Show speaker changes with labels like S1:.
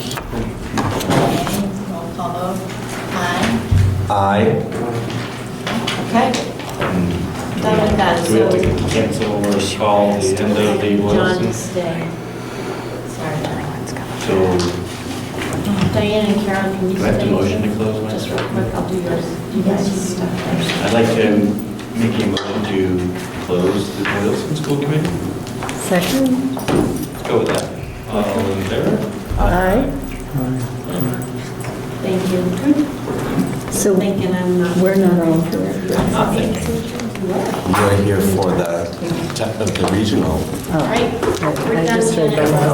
S1: Oh,
S2: Aye.
S3: Okay. Done with that,
S4: Do we have to
S3: so.
S4: cancel or call the end of the
S3: John,
S4: was
S3: stay. Sorry.
S4: So
S3: Diane and Karen, can you
S4: do
S3: stay?
S4: I have to motion to close
S3: Just
S4: my?
S3: real quick, I'll do yours. You guys stuff first.
S4: I'd like to make a motion to close the Boylston School Committee.
S1: Second?
S4: Let's go with that. All in favor?
S1: Aye.
S3: Thank you.
S1: So
S3: Thinking I'm not.
S1: we're not all here.
S4: Not thinking.
S3: You are.
S2: You're here for the, the regional.
S3: All right.
S1: Oh, I just read that.